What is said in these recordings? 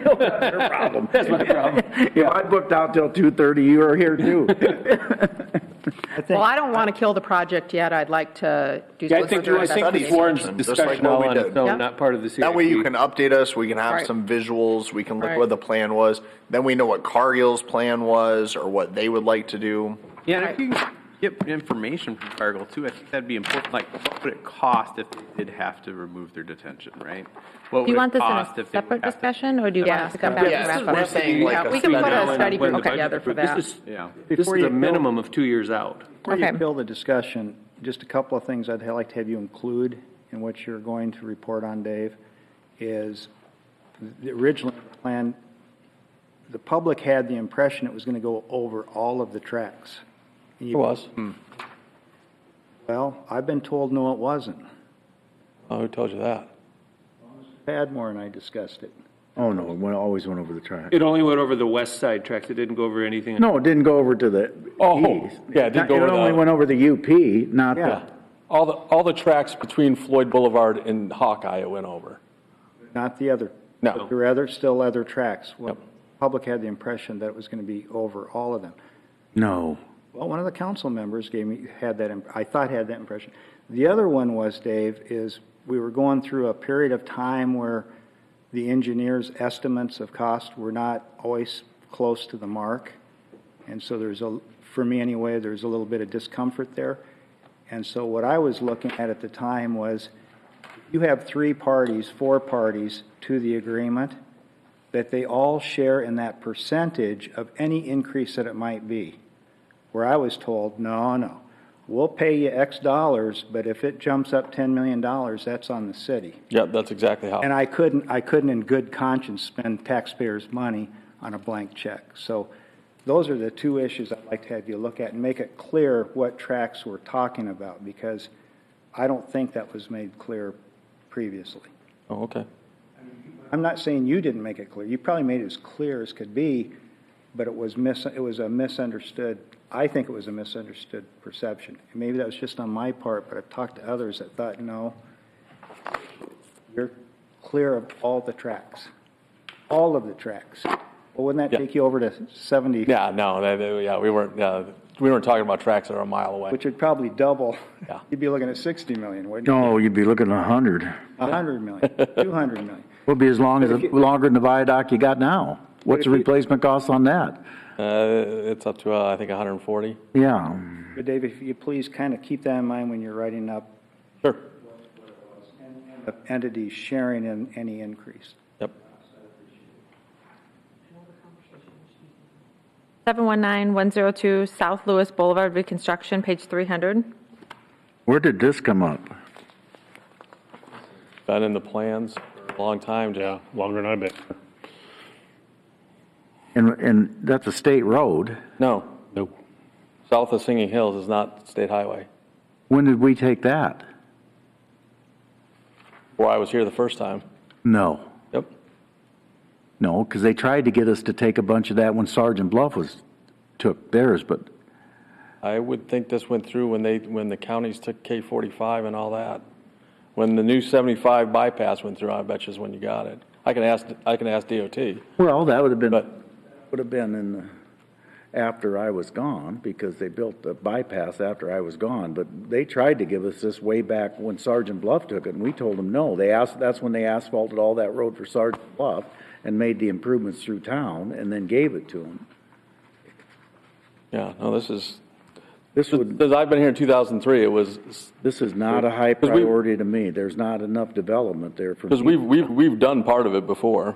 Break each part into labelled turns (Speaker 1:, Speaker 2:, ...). Speaker 1: That's your problem.
Speaker 2: That's my problem.
Speaker 1: If I booked out till two thirty, you are here too.
Speaker 3: Well, I don't want to kill the project yet. I'd like to do.
Speaker 2: Yeah, I think,
Speaker 3: solicitor
Speaker 2: I think the
Speaker 3: investigation.
Speaker 2: forum's
Speaker 4: Just like
Speaker 2: discussion
Speaker 4: what
Speaker 2: all
Speaker 4: we
Speaker 2: on its
Speaker 4: did.
Speaker 3: Yeah.
Speaker 2: own, not part of the CIP.
Speaker 4: That way you can update us, we can have
Speaker 3: Right.
Speaker 4: some visuals, we can look
Speaker 3: Right.
Speaker 4: what the plan was, then we know what Cargill's plan was or what they would like to do.
Speaker 5: Yeah, and if you can get information from Cargill too, I think that'd be important, like what would it cost if they did have to remove their detention, right? What
Speaker 6: Do
Speaker 5: would
Speaker 6: you want
Speaker 5: it
Speaker 6: this in
Speaker 5: cost
Speaker 6: a
Speaker 5: if they would
Speaker 6: separate
Speaker 5: have to-
Speaker 6: discussion, or do you want
Speaker 3: Yeah.
Speaker 6: us to come back
Speaker 3: Yeah,
Speaker 6: and wrap
Speaker 4: we're
Speaker 6: up?
Speaker 4: saying like
Speaker 3: Yeah,
Speaker 4: a
Speaker 3: we can put a
Speaker 4: three-hour-
Speaker 3: study
Speaker 2: When the
Speaker 3: group
Speaker 2: budget's
Speaker 3: together for
Speaker 2: approved.
Speaker 3: that.
Speaker 2: This is-
Speaker 5: Yeah.
Speaker 2: This
Speaker 7: Before
Speaker 2: is
Speaker 7: you
Speaker 2: a
Speaker 7: go-
Speaker 2: minimum of two years out.
Speaker 6: Okay.
Speaker 7: Before you fill the discussion, just a couple of things I'd like to have you include in what you're going to report on, Dave, is the original plan, the public had the impression it was going to go over all of the tracks. And
Speaker 8: It
Speaker 7: you-
Speaker 8: was.
Speaker 7: Well, I've been told, no, it wasn't.
Speaker 8: Oh, who told you that?
Speaker 7: Padmore and I discussed it.
Speaker 1: Oh, no, it went- always went over the track.
Speaker 2: It only went over the west side tracks. It didn't go over anything.
Speaker 1: No, it didn't go over to the.
Speaker 8: Oh,
Speaker 1: east.
Speaker 8: yeah, it didn't go over
Speaker 1: It only
Speaker 8: the-
Speaker 1: went over the UP, not the,
Speaker 7: Yeah,
Speaker 8: All the, all the tracks between Floyd Boulevard and Hawkeye it went over.
Speaker 7: not the other.
Speaker 8: No.
Speaker 7: There were other, still other tracks. Well,
Speaker 8: Yep.
Speaker 7: public had the impression that it was going to be over all of them.
Speaker 1: no.
Speaker 7: Well, one of the council members gave me, had that, imp- I thought had that impression. The other one was, Dave, is we were going through a period of time where the engineers' estimates of cost were not always close to the mark. And so there's a, for me anyway, there's a little bit of discomfort there. And so what I was looking at at the time was, you have three parties, four parties to the agreement, that they all share in that percentage of any increase that it might be where I was told, no, no, we'll pay you X dollars, but if it jumps up $10 million, that's on the city.
Speaker 8: Yep, that's exactly how.
Speaker 7: And I couldn't, I couldn't in good conscience spend taxpayers' money on a blank check. So those are the two issues I'd like to have you look at and make it clear what tracks we're talking about, because I don't think that was made clear previously.
Speaker 8: Oh, okay.
Speaker 7: I'm not saying you didn't make it clear. You probably made it as clear as could be, but it was mis, it was a misunderstood, I think it was a misunderstood perception. And Maybe that was just on my part, but I've talked to others that thought, no, you're clear of all the tracks, all of the tracks. Well, wouldn't that
Speaker 8: Yeah.
Speaker 7: take you over to 70?
Speaker 8: Yeah, no, that- that- yeah, we weren't, yeah, we weren't talking about tracks that are a mile away.
Speaker 7: Which would probably double.
Speaker 8: Yeah.
Speaker 7: You'd be looking at 60 million, wouldn't you?
Speaker 1: No, you'd be looking at a hundred.
Speaker 7: 100 million, 200 million.
Speaker 1: Would be as long as, longer than the viaduct you got now. What's the replacement cost on that?
Speaker 8: Uh, it's up to, uh, I think, 140.
Speaker 1: Yeah,
Speaker 7: But Dave, if you please kind of keep that in mind when you're writing up
Speaker 8: Sure.
Speaker 7: of entities sharing in any increase.
Speaker 8: Yep.
Speaker 6: 719-102 South Lewis Boulevard reconstruction, page 300.
Speaker 1: where did this come up?
Speaker 8: Been in the plans for a long time, Joe.
Speaker 9: longer than I've been.
Speaker 1: And, and that's a state road.
Speaker 8: No,
Speaker 9: No,
Speaker 8: south of Singing Hills is not state highway.
Speaker 1: When did we take that?
Speaker 8: Where I was here the first time.
Speaker 1: No,
Speaker 8: Yep.
Speaker 1: no, because they tried to get us to take a bunch of that when Sergeant Bluff was, took theirs, but
Speaker 8: I would think this went through when they, when the counties took K forty-five and all that. When the new seventy-five bypass went through, I bet you is when you got it. I can ask, I can ask DOT.
Speaker 1: Well, that would have been,
Speaker 8: But-
Speaker 1: would have been in, the- after I was gone, because they built the bypass after I was gone, but they tried to give us this way back when Sergeant Bluff took it, and we told them no. They asked, that's when they asphalted all that road for Sergeant Bluff and made the improvements through town and then gave it to them.
Speaker 8: Yeah, no, this is,
Speaker 1: This would,
Speaker 8: since I've been here in two thousand and three, it was,
Speaker 1: this is not a high
Speaker 8: 'Cause we-
Speaker 1: priority to me. There's not enough development there for me.
Speaker 8: because we've, we've, we've done part of it before.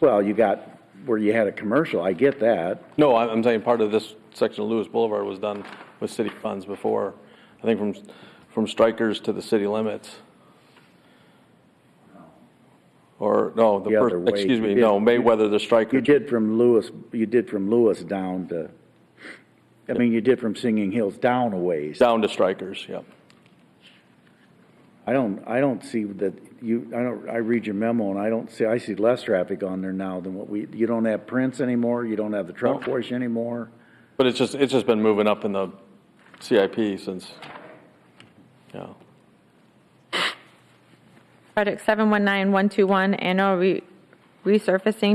Speaker 1: Well, you got, where you had a commercial, I get that.
Speaker 8: No, I- I'm saying part of this section of Lewis Boulevard was done with city funds before. I think from, from strikers to the city limits. Or, no, the
Speaker 1: The other
Speaker 8: first,
Speaker 1: way.
Speaker 8: excuse me,
Speaker 1: You
Speaker 8: no,
Speaker 1: did-
Speaker 8: Mayweather to
Speaker 1: You
Speaker 8: strikers.
Speaker 1: did from Lewis, you did from Lewis down to, I mean, you did from Singing Hills down a ways.
Speaker 8: Down to strikers, yep.
Speaker 1: I don't, I don't see that you, I don't, I read your memo and I don't see, I see less traffic on there now than what we, you don't have Prince anymore, you don't have the truck wash anymore.
Speaker 8: But it's just, it's just been moving up in the CIP since, yeah.
Speaker 6: Project 719-121 annual re- resurfacing,